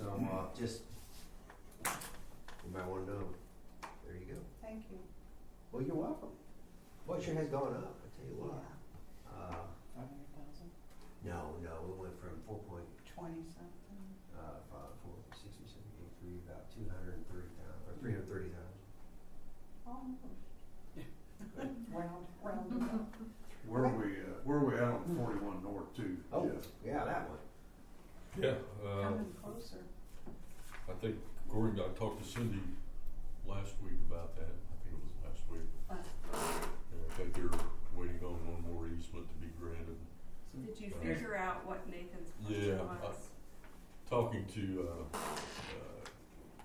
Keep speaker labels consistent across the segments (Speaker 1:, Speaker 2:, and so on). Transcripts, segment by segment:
Speaker 1: Well, uh, just, you might wanna know, there you go.
Speaker 2: Thank you.
Speaker 1: Well, you're welcome. Well, it sure has gone up, I tell you what. Uh,
Speaker 2: Five hundred thousand,
Speaker 1: no, no, it went from four point,
Speaker 2: twenty something.
Speaker 1: uh, five, four, six, or seven, eight, three, about two hundred and thirty thousand, or three hundred and thirty thousand.
Speaker 2: Almost. Round, round about.
Speaker 3: Where are we, uh, where are we at on forty-one north too?
Speaker 1: Oh,
Speaker 3: Jeff?
Speaker 1: yeah, that one.
Speaker 4: Yeah, uh,
Speaker 2: Coming closer.
Speaker 4: I think Gordon, I talked to Cindy last week about that, I think it was last week.
Speaker 2: Right.
Speaker 4: And I think they're waiting on one more easement to be granted.
Speaker 5: Did you
Speaker 4: Uh,
Speaker 5: figure out what Nathan's
Speaker 4: Yeah,
Speaker 5: question
Speaker 4: I-
Speaker 5: was?
Speaker 4: Talking to, uh, uh,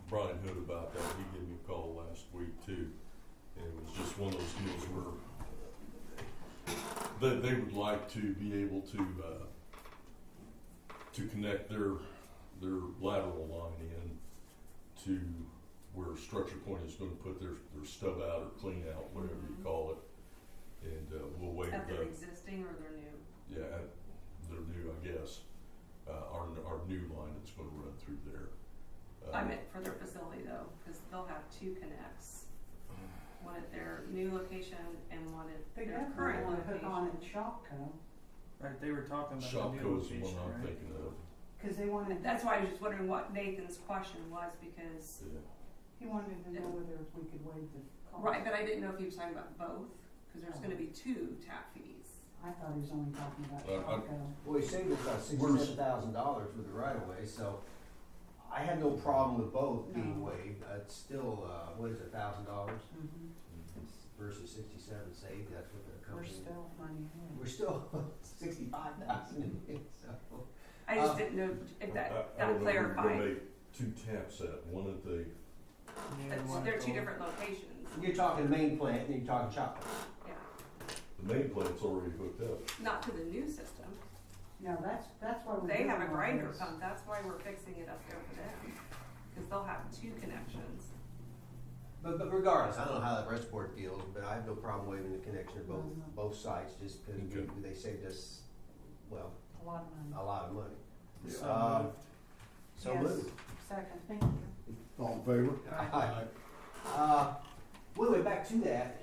Speaker 4: Brian Hood about that, he gave me a call last week too. And it was just one of those deals where uh, they, they would like to be able to, uh, to connect their, their lateral line in to where Structure Point is gonna put their, their stub out or clean out, whatever you
Speaker 5: Mhm.
Speaker 4: call it. And, uh, we'll wait
Speaker 5: Of
Speaker 4: that
Speaker 5: their existing or their new?
Speaker 4: yeah, at- they're new, I guess. Uh, our, our new line that's gonna run through there. Uh,
Speaker 5: I meant for their facility though, because they'll have two connects. One at their new location and one
Speaker 2: They
Speaker 5: at their
Speaker 2: definitely
Speaker 5: current
Speaker 2: wanna put on
Speaker 5: location.
Speaker 2: at Shopco,
Speaker 6: Right, they were talking about the new
Speaker 4: Shopko's the
Speaker 6: location,
Speaker 4: one I'm
Speaker 6: right?
Speaker 4: thinking of,
Speaker 2: cause they wanted,
Speaker 5: That's why I was just wondering what Nathan's question was because,
Speaker 4: yeah.
Speaker 2: he wanted to know whether if we could waive the cost.
Speaker 5: right, but I didn't know if he was talking about both, because there's gonna be two tap fees.
Speaker 2: I thought he was only talking about
Speaker 4: Uh, I-
Speaker 2: Shopco.
Speaker 1: Well, he saved us about
Speaker 4: Where's-
Speaker 1: sixty-seven thousand dollars with the right of way, so I had no problem with both being
Speaker 2: No.
Speaker 1: waived. Uh, It's still, uh, what is it, thousand dollars
Speaker 2: Mhm.
Speaker 1: versus sixty-seven saved, that's what the
Speaker 2: We're
Speaker 1: company.
Speaker 2: still money ahead.
Speaker 1: We're still sixty-five thousand, so.
Speaker 5: I just
Speaker 1: Uh,
Speaker 5: didn't know if
Speaker 4: I-
Speaker 5: that,
Speaker 4: I
Speaker 5: that
Speaker 4: don't know if we're gonna
Speaker 5: clarified.
Speaker 4: make Two taps at, one at the,
Speaker 6: Yeah, the
Speaker 5: That's-
Speaker 6: one
Speaker 5: They're
Speaker 6: at
Speaker 5: two
Speaker 6: the-
Speaker 5: different locations,
Speaker 1: You're talking main plant, then you're talking chop.
Speaker 5: yeah,
Speaker 4: the main plant's already hooked up.
Speaker 5: not to the new system.
Speaker 2: No, that's, that's why we're
Speaker 5: They
Speaker 2: doing
Speaker 5: have a
Speaker 2: all
Speaker 5: grinder
Speaker 2: this.
Speaker 5: pump, that's why we're fixing it up there for them, because they'll have two connections.
Speaker 1: But, but regardless, I don't know how that rest board feels, but I have no problem waiving the connection of both,
Speaker 2: Mhm.
Speaker 1: both sites, just because
Speaker 4: Okay.
Speaker 1: they saved us, well,
Speaker 2: A lot of money.
Speaker 1: a lot of money.
Speaker 6: So
Speaker 1: Uh,
Speaker 6: moved.
Speaker 1: So
Speaker 2: Yes.
Speaker 1: moved.
Speaker 2: Second, thank you.
Speaker 3: All in favor?
Speaker 1: Aye. Uh, well, anyway, back to that.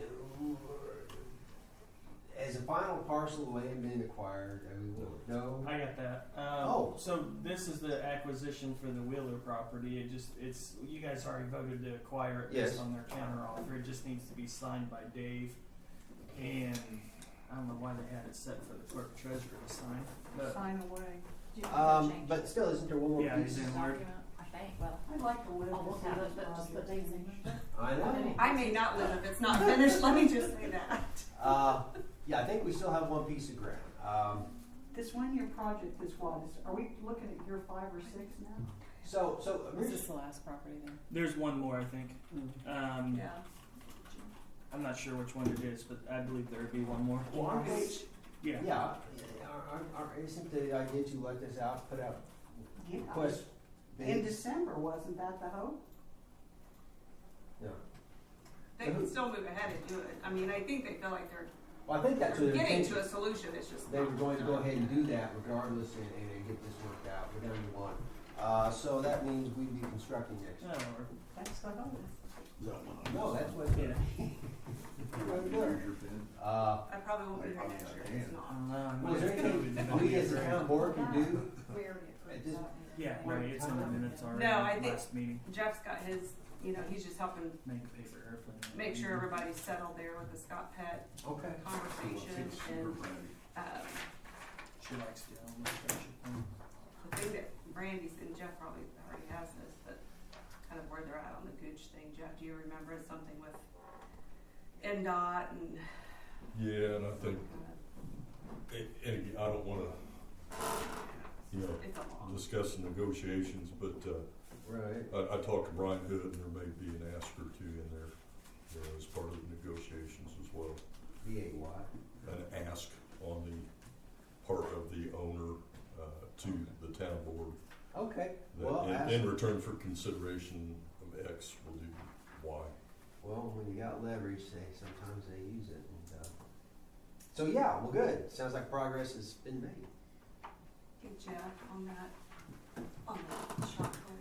Speaker 1: As a final parcel of land being acquired, I mean, we'll know.
Speaker 6: I got that. Um,
Speaker 1: Oh.
Speaker 6: so this is the acquisition for the Wheeler property. It just it's you guys already voted to acquire it
Speaker 1: Yes.
Speaker 6: based on their counter offer. It just needs to be signed by Dave, and I don't know why they had it set for the clerk treasurer to sign, but
Speaker 2: Sign away.
Speaker 1: Um, but still, isn't there one more
Speaker 6: Yeah,
Speaker 1: piece?
Speaker 6: it's in Word.
Speaker 7: I think, well,
Speaker 2: I'd like to live
Speaker 5: Oh,
Speaker 7: I'll
Speaker 2: to
Speaker 7: look
Speaker 2: see
Speaker 7: at
Speaker 2: this
Speaker 7: it, but just put
Speaker 2: project
Speaker 7: these in.
Speaker 2: finished.
Speaker 1: I know.
Speaker 5: I may not live if it's not finished, let me just say that.
Speaker 1: Uh, yeah, I think we still have one piece of ground. Um,
Speaker 2: This one-year project is what, is, are we looking at year five or six now?
Speaker 1: so, so,
Speaker 7: is
Speaker 1: orig-
Speaker 7: this the last property then?
Speaker 6: there's one more I think. Um,
Speaker 5: Yeah,
Speaker 6: I'm not sure which one it is, but I believe there would be one more.
Speaker 1: well, aren't they-
Speaker 6: Yeah.
Speaker 1: yeah, are- aren't- aren't- isn't the idea to let this out, put out
Speaker 2: Yeah.
Speaker 1: request
Speaker 2: In
Speaker 1: bids?
Speaker 2: December, wasn't that the hope?
Speaker 1: No.
Speaker 5: they can still move ahead and do it, I mean, I think they feel like they're,
Speaker 1: Well, I think that's what their
Speaker 5: they're getting
Speaker 1: intention.
Speaker 5: to a solution, it's just
Speaker 1: they were
Speaker 5: not
Speaker 1: going to go
Speaker 5: done.
Speaker 1: ahead and do that regardless and, and and get this worked out, whatever you want. Uh, so that means we'd be constructing next year.
Speaker 6: Oh,
Speaker 2: That's the hope.
Speaker 1: No, that's what.
Speaker 6: yeah.
Speaker 3: Use your pen.
Speaker 1: Uh,
Speaker 5: I probably won't be here next year, it's
Speaker 6: I
Speaker 5: not.
Speaker 6: don't know.
Speaker 1: well, is there
Speaker 6: Um,
Speaker 1: anything we as a town board can do?
Speaker 7: We already approved
Speaker 1: This-
Speaker 7: that.
Speaker 6: Yeah, right. It's in the minutes already.
Speaker 5: No, I think-
Speaker 6: last meeting.
Speaker 5: Jeff's got his, you know, he's just helping
Speaker 6: Make a paper airplane.
Speaker 5: make sure
Speaker 1: Mm-hmm.
Speaker 5: everybody's settled there with the Scott Pet
Speaker 1: Okay.
Speaker 5: conversation
Speaker 3: Six,
Speaker 5: and,
Speaker 3: we're ready.
Speaker 5: um,
Speaker 6: She likes to. own the um, friendship thing.
Speaker 5: the thing that Brandy's and Jeff probably already has this, but kind of where they're at on the Gooch thing. Jeff, do you remember It's something with NDOT and?
Speaker 4: Yeah, and I think, and, and again, I don't wanna, you know,
Speaker 5: It's a long.
Speaker 4: discuss the negotiations, but, uh,
Speaker 1: Right.
Speaker 4: I, I talked to Brian Hood and there may be an ask or two in there, you know, as part of the negotiations as well.
Speaker 1: B A Y.
Speaker 4: an ask on the part of the owner uh, to the town board.
Speaker 1: Okay.
Speaker 4: that
Speaker 1: Well,
Speaker 4: in-
Speaker 1: ask-
Speaker 4: In return for consideration of X, we'll do Y.
Speaker 1: Well, when you got leverage, they sometimes they use it. And, uh, so yeah, well, good. Sounds like progress has been made.
Speaker 5: Hey Jeff, on that, on that shop